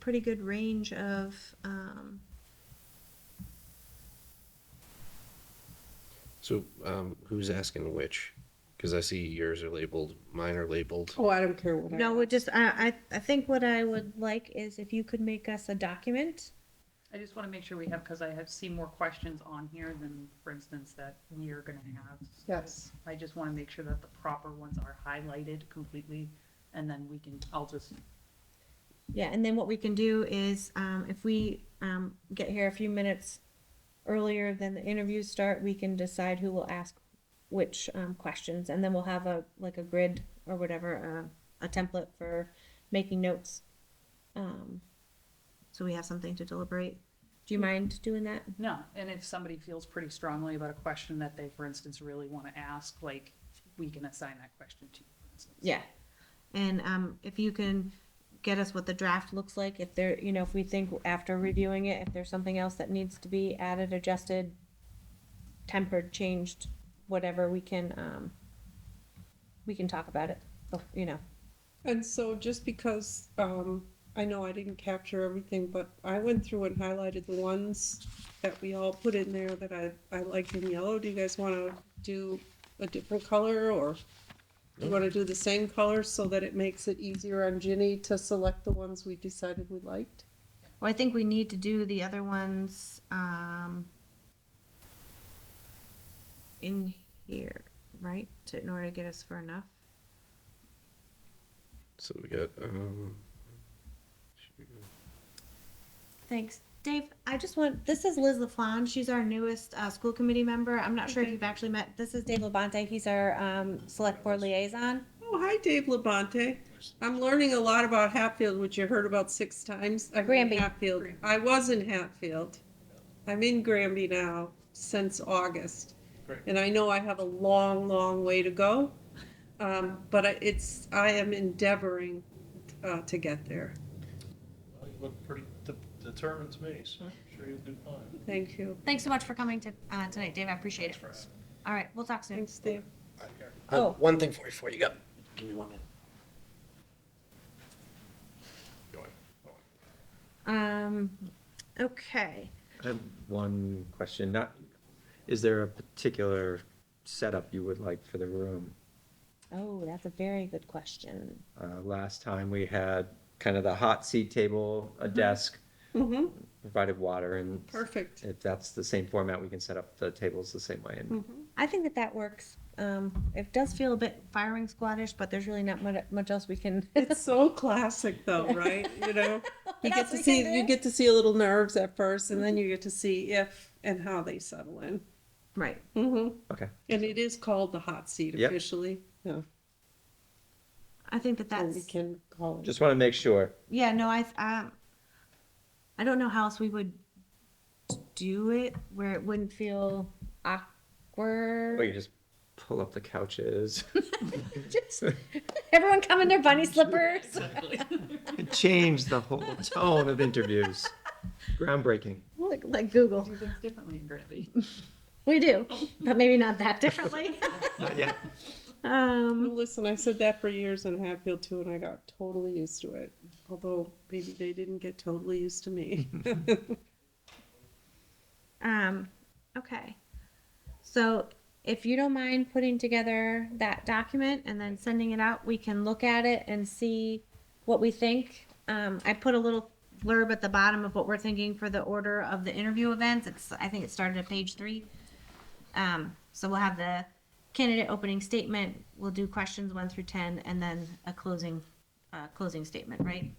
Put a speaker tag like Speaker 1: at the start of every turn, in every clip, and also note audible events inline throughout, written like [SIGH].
Speaker 1: pretty good range of, um,
Speaker 2: So, um, who's asking which? Because I see yours are labeled, mine are labeled.
Speaker 3: Oh, I don't care what. I
Speaker 1: no,
Speaker 3: ask.
Speaker 1: we just, I, I, I think what I would like is if you could make us a document.
Speaker 4: I just want to make sure we have, because I have seen more questions on here than, for instance, that we are going to have.
Speaker 3: Yes.
Speaker 4: I just want to make sure that the proper ones are highlighted completely, and then we can, I'll just,
Speaker 1: Yeah, and then what we can do is, um, if we, um, get here a few minutes earlier than the interviews start, we can decide who will ask which, um, questions, and then we'll have a, like a grid or whatever, uh, a template for making notes. Um, so we have something to deliberate. Do you mind doing that?
Speaker 4: no, and if somebody feels pretty strongly about a question that they, for instance, really want to ask, like, we can assign that question to you, for instance.
Speaker 1: Yeah. And um, if you can get us what the draft looks like, if there, you know, if we think after reviewing it, if there's something else that needs to be added, adjusted, tempered, changed, whatever, we can, um, we can talk about it, bef- you know.
Speaker 3: And so just because, um, I know I didn't capture everything, but I went through and highlighted the ones that we all put in there that I, I liked in yellow. Do you guys wanna do a different color or you wanna do the same color so that it makes it easier on Ginny to select the ones we decided we liked?
Speaker 1: Well, I think we need to do the other ones, um, in here, right, to, in order to get us for enough.
Speaker 2: So we got, um,
Speaker 1: Thanks. Dave, I just want, this is Liz LaFlamme. She's our newest uh, school committee member. I'm not sure if
Speaker 3: Okay.
Speaker 1: you've actually met. This is Dave Labonte. He's our um, select board liaison.
Speaker 3: Oh, hi, Dave Labonte. I'm learning a lot about Hatfield, which you heard about six times. I'm in
Speaker 1: Granby.
Speaker 3: Hatfield. I was in Hatfield. I'm in Granby now since August.
Speaker 2: Great.
Speaker 3: And I know I have a long, long way to go. Um, but I- it's, I am endeavoring, uh, to get there.
Speaker 5: Well, You look pretty de- determined to me, so I'm sure you'll do fine.
Speaker 3: Thank you.
Speaker 1: Thanks so much for coming to uh, tonight, Dave. I appreciate it. All right, we'll talk soon.
Speaker 3: Thanks, Dave.
Speaker 6: I have
Speaker 1: Oh.
Speaker 6: One thing for you before you go. Give me one minute.
Speaker 1: Um, okay.
Speaker 7: I have one question, not, is there a particular setup you would like for the room?
Speaker 1: Oh, that's a very good question.
Speaker 7: Uh, last time we had kind of the hot seat table, a
Speaker 1: Mm-hmm.
Speaker 7: desk,
Speaker 3: hmm
Speaker 7: provided water and.
Speaker 3: perfect.
Speaker 7: If that's the same format, we can set up the tables the same way and
Speaker 1: I think that that works. Um, it does feel a bit firing squadish, but there's really not much, much else we can. [LAUGHS]
Speaker 3: It's so classic though, right? You know? You
Speaker 1: What
Speaker 3: get
Speaker 1: else
Speaker 3: to
Speaker 1: we Mm-hmm. can
Speaker 3: see, you
Speaker 1: do?
Speaker 3: get to see a little nerves at first and then you get to see if and how they settle in.
Speaker 1: right.
Speaker 3: hmm
Speaker 7: Okay.
Speaker 3: And it is called the hot seat
Speaker 7: Yep.
Speaker 3: officially. Yeah.
Speaker 1: I think that
Speaker 3: Or
Speaker 1: that's.
Speaker 3: we can call it.
Speaker 7: Just want to make sure.
Speaker 1: Yeah, no, I, um, I don't know how else we would do it where it wouldn't feel
Speaker 7: Wait,
Speaker 1: awkward.
Speaker 7: you just pull up the couches
Speaker 1: Just everyone come in their
Speaker 7: [LAUGHS]
Speaker 1: bunny slippers.
Speaker 7: and [LAUGHS] change the whole [LAUGHS] tone of interviews. Groundbreaking.
Speaker 1: like, like Google.
Speaker 4: Do things differently in Granby.
Speaker 1: We do, but maybe not that differently.
Speaker 7: Not yet.
Speaker 1: [LAUGHS] um,
Speaker 3: Listen, I said that for years in Hatfield too, and I got totally used to it. Although maybe they didn't get totally used to me. [LAUGHS]
Speaker 1: Um, okay. So if you don't mind putting together that document and then sending it out, we can look at it and see what we think. Um, I put a little blurb at the bottom of what we're thinking for the order of the interview events. It's, I think it started at page three. Um, so we'll have the candidate opening statement, we'll do questions one through 10, and then a closing, uh, closing statement, right?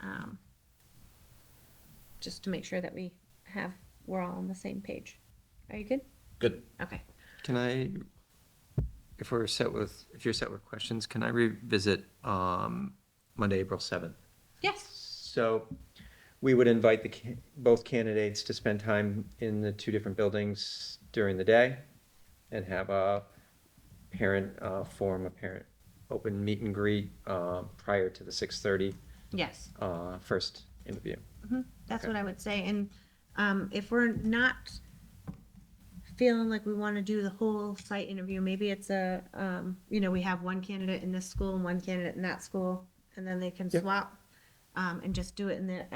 Speaker 1: Um, just to make sure that we have, we're all on the same page. Are you good?
Speaker 6: Good.
Speaker 1: Okay.
Speaker 7: Can I, if we're set with, if you're set with questions, can I revisit um, Monday, April 7th?
Speaker 1: Yes.
Speaker 7: So we would invite the, ca- both candidates to spend time in the two different buildings during the day and have a parent uh, forum, a parent open meet and greet uh, prior to the 6:30
Speaker 1: Yes.
Speaker 7: uh, first interview.
Speaker 1: That's
Speaker 7: Okay.
Speaker 1: what I would say. And um, if we're not feeling like we want to do the whole site interview, maybe it's a, um, you know, we have one candidate in this school and one candidate in that school, and then they can
Speaker 7: Yep.
Speaker 1: swap um, and just do it in the